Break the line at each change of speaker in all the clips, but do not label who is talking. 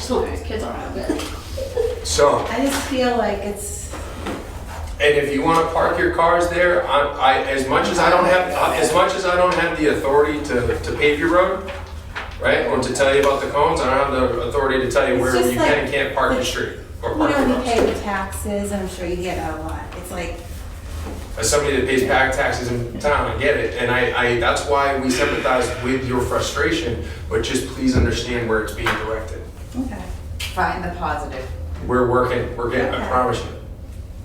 schools, kids aren't open.
So,
I just feel like it's,
and if you want to park your cars there, I, I, as much as I don't have, uh, as much as I don't have the authority to, to pave your road, right, or to tell you about the cones, I don't have the authority to tell you
It's
where
just
you can and
like-
can't park your
like,
street or
you
park your
know, we
road.
pay the taxes, I'm sure you get a lot. It's like,
As somebody that pays back taxes in town, I get it, and I, I, that's why we sympathize with your frustration, but just please understand where it's being directed.
okay.
Find the positive.
We're working, we're getting, I
Okay.
promise you.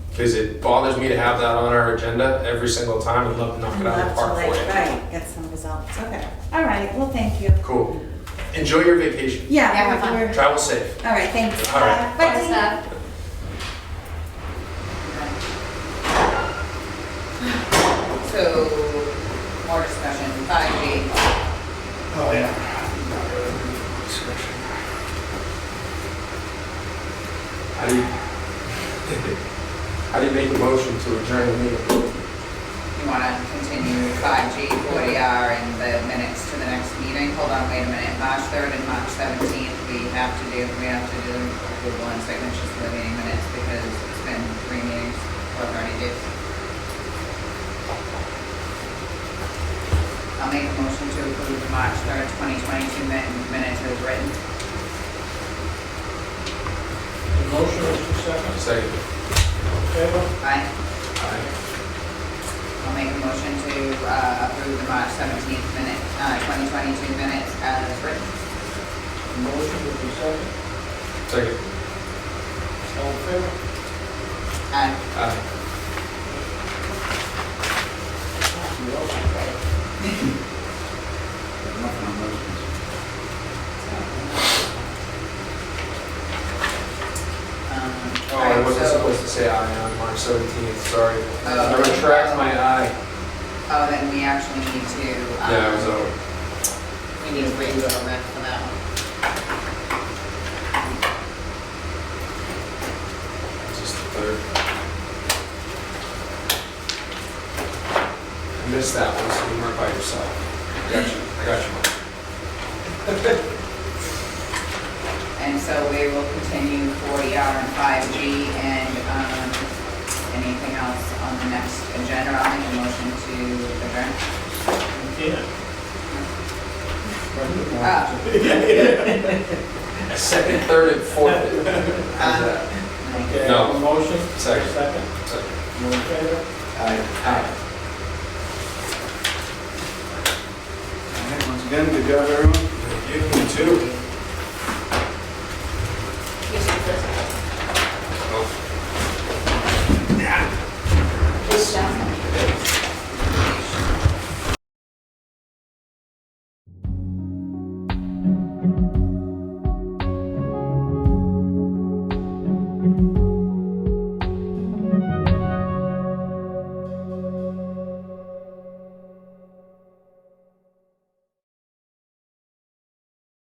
Because it bothers me to have that on our agenda every single time and love to knock
I'd
it out of
love
the
to
park
like,
for you.
right, get some results, okay. All right, well, thank you.
Cool. Enjoy your vacation.
Yeah.
Yeah, have fun.
we're-
Travel safe.
All right, thanks. Uh,
All right.
Bye.
What's that?
So, more discussion, five G.
Oh, yeah. Not really good discussion.
How do you, how do you make a motion to adjourn the meeting?
You wanna continue five G, forty R, and the minutes to the next meeting? Hold on, wait a minute, March third and March seventeenth, we have to do, we have to do the one signatures for the meeting minutes because it's been three meetings, or thirty days. I'll make a motion to approve the March third, twenty twenty-two minutes as written.
The motion is the second,
Second.
favor?
Aye.
Aye.
I'll make a motion to uh, approve the March 17th minute, uh, 2022 minutes as written.
The motion is the second,
Second.
all in favor?
And
Aye.
You also got it.
Nothing on motions.
um,
Oh,
all
I
right,
wasn't
so-
supposed to say aye on March seventeenth, sorry. I
Oh.
retract my aye.
Oh, then we actually need to. um,
Yeah, it was uh, over.
We need to wait until then for that one.
Just the third. I missed that one, so you weren't by yourself. I got you, I got you. Mike.
And so we will continue 40R and 5G and um, anything else on the next agenda. I'll make a motion to adjourn.
Yeah.
Oh,
Second, third, and fourth. How's that?
Okay,
No.
the motion,
Second.
second,
Second.
all in favor?
Aye.
All right, Once again, good job, everyone.
You, you too.